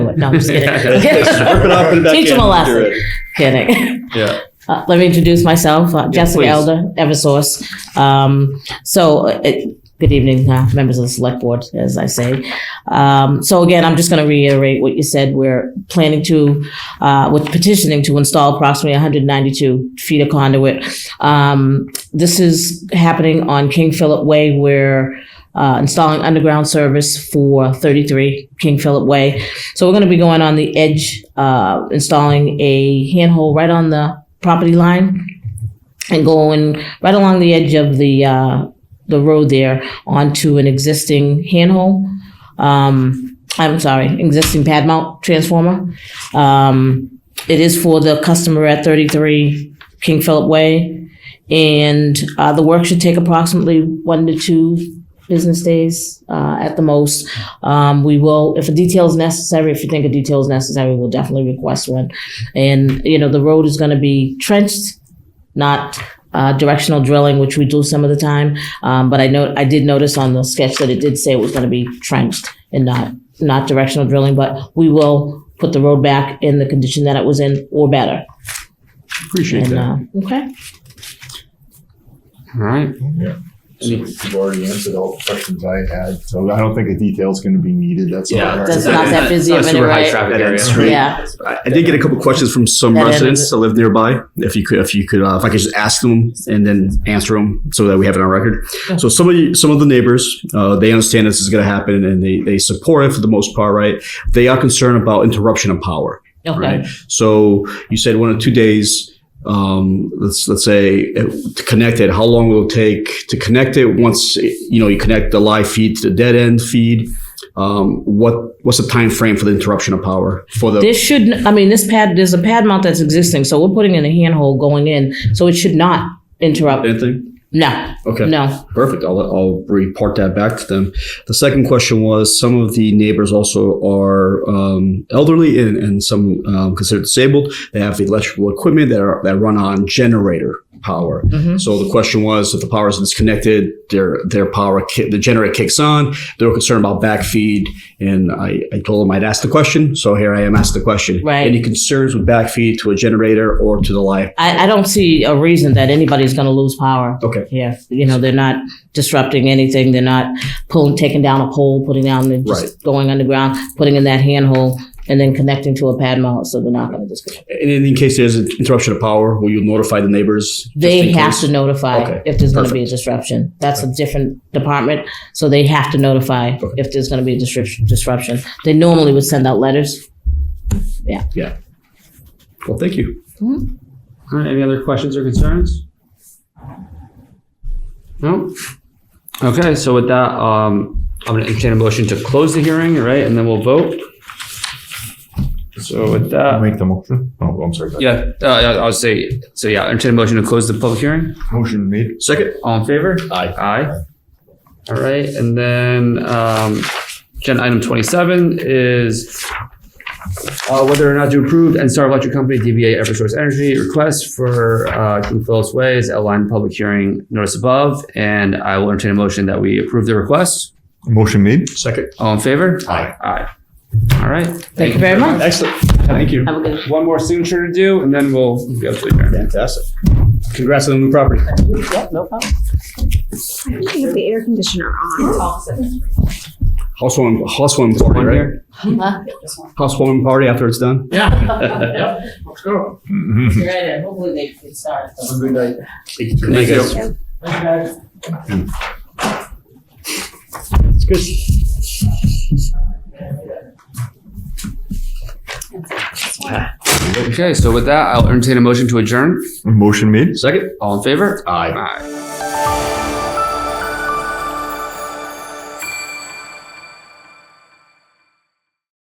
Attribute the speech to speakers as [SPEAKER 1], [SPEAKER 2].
[SPEAKER 1] it. No, I'm just kidding.
[SPEAKER 2] Rip it up and back
[SPEAKER 1] Teach them
[SPEAKER 2] in.
[SPEAKER 1] a
[SPEAKER 2] Do
[SPEAKER 1] lesson.
[SPEAKER 2] it.
[SPEAKER 1] Kidding.
[SPEAKER 2] Yeah.
[SPEAKER 1] Uh, let me introduce myself, uh, Jessica
[SPEAKER 2] please.
[SPEAKER 1] Elder, Eversource. Um, so, uh, it- good evening, uh, members of the select board, as I say. Um, so again, I'm just going to reiterate what you said. We're planning to, uh, with petitioning to install approximately 192 feet of conduit. Um, this is happening on King Philip Way. We're uh, installing underground service for 33 King Philip Way. So we're going to be going on the edge, uh, installing a handhole right on the property line and going right along the edge of the, uh, the road there onto an existing handhole. Um, I'm sorry, existing pad mount transformer. Um, it is for the customer at 33 King Philip Way. And, uh, the work should take approximately one to two business days, uh, at the most. Um, we will, if a detail is necessary, if you think a detail is necessary, we'll definitely request one. And, you know, the road is gonna be trenched, not uh, directional drilling, which we do some of the time. Um, but I know, I did notice on the sketch that it did say it was gonna be trenched and not, not directional drilling, but we will put the road back in the condition that it was in or better.
[SPEAKER 2] Appreciate
[SPEAKER 1] And,
[SPEAKER 2] that.
[SPEAKER 1] uh, okay.
[SPEAKER 2] All right.
[SPEAKER 3] So You've already answered all the questions I had, so I don't think a detail's gonna be needed, that's all.
[SPEAKER 2] Yeah.
[SPEAKER 3] right.
[SPEAKER 1] That's not that busy of
[SPEAKER 2] Not
[SPEAKER 1] an
[SPEAKER 2] super high
[SPEAKER 1] array.
[SPEAKER 2] traffic
[SPEAKER 4] That
[SPEAKER 2] area.
[SPEAKER 4] is true.
[SPEAKER 1] Yeah,
[SPEAKER 4] I, I did get a couple questions from some
[SPEAKER 1] That end of
[SPEAKER 4] residents
[SPEAKER 1] it.
[SPEAKER 4] that live nearby. If you could, if you could, uh, if I could just ask them and then answer them so that we have it on record.
[SPEAKER 1] Yeah.
[SPEAKER 4] So some of the, some of the neighbors, uh, they understand this is going to happen and they, they support it for the most part, right? They are concerned about interruption of power
[SPEAKER 1] okay.
[SPEAKER 4] right? So you said one or two days. Um, let's let's say uh, to connect it. How long will it take to connect it? Once eh, you know you connect the live feed to the dead end feed. Um, what what's the time frame for the interruption of power for the?
[SPEAKER 1] This should, I mean, this pad, there's a pad mount that's existing, so we're putting in a handhold going in, so it should not interrupt.
[SPEAKER 4] Anything?
[SPEAKER 1] No,
[SPEAKER 4] Okay.
[SPEAKER 1] no.
[SPEAKER 4] Perfect. I'll, I'll report that back to them. The second question was some of the neighbors also are um, elderly and, and some um, considered disabled. They have electrical equipment that, are, that run on generator power.
[SPEAKER 1] Mhm.
[SPEAKER 4] So the question was if the power is disconnected, their their power ki- the generator kicks on. They were concerned about backfeed, and I, I told them I'd ask the question. So here I am asked the question.
[SPEAKER 1] Right.
[SPEAKER 4] Any concerns with backfeed to a generator or to the live?
[SPEAKER 1] I, I don't see a reason that anybody's gonna lose power.
[SPEAKER 4] Okay.
[SPEAKER 1] Yeah, you know, they're not disrupting anything, they're not pulling, taking down a pole, putting down, they're just going underground, putting in that handhold, and then connecting to a pad mount, so they're not gonna disconnect.
[SPEAKER 4] And in, in case there's an interruption of power, will you notify the neighbors? just
[SPEAKER 1] They
[SPEAKER 4] in
[SPEAKER 1] have
[SPEAKER 4] case?
[SPEAKER 1] to notify
[SPEAKER 4] Okay,
[SPEAKER 1] if there's gonna be a disruption. That's a different department, so they have to notify
[SPEAKER 4] Okay.
[SPEAKER 1] if there's gonna be a disruption, disruption. They normally would send out letters.
[SPEAKER 4] Well, thank you.
[SPEAKER 2] All right. Any other questions or concerns? No. Okay. So with that, um, I'm going to entertain a motion to close the hearing, all right? And then we'll vote. So with
[SPEAKER 3] I'll
[SPEAKER 2] that,
[SPEAKER 3] Make the motion, oh, I'm sorry,
[SPEAKER 2] yeah, uh, I- I'll say, so yeah, entertain a motion to close the public hearing.
[SPEAKER 3] motion made.
[SPEAKER 4] Second.
[SPEAKER 2] All in favor?
[SPEAKER 4] Aye.
[SPEAKER 2] Aye. All right, and then, um, agenda item twenty-seven is uh, whether or not to approve NSTAR Electric Company, DBA Eversource Energy, request for, uh, King Phillips Way is outlined in public hearing notice above, and I will entertain a motion that we approve the request.
[SPEAKER 3] Motion made.
[SPEAKER 4] Second.
[SPEAKER 2] All in favor?
[SPEAKER 3] Aye.
[SPEAKER 2] Aye. All right.
[SPEAKER 1] Thank you very much.
[SPEAKER 4] Excellent. Thank you.
[SPEAKER 1] Have a good.
[SPEAKER 2] One more signature to do, and then we'll go to adjourn.
[SPEAKER 4] Fantastic. Congrats on the new property.
[SPEAKER 1] Yeah, no problem.
[SPEAKER 5] I think you have the air conditioner on.
[SPEAKER 4] Housewarming, housewarming party,
[SPEAKER 2] One
[SPEAKER 4] right?
[SPEAKER 2] here.
[SPEAKER 4] Housewarming party after it's done.
[SPEAKER 1] Yeah.
[SPEAKER 3] Mhm.
[SPEAKER 1] Right, hopefully they can start.
[SPEAKER 2] Thank you.
[SPEAKER 4] It's good.
[SPEAKER 2] Okay, so with that, I'll entertain a motion to adjourn.
[SPEAKER 3] Motion made.
[SPEAKER 4] Second.
[SPEAKER 2] All in favor?
[SPEAKER 4] Aye.
[SPEAKER 2] Aye.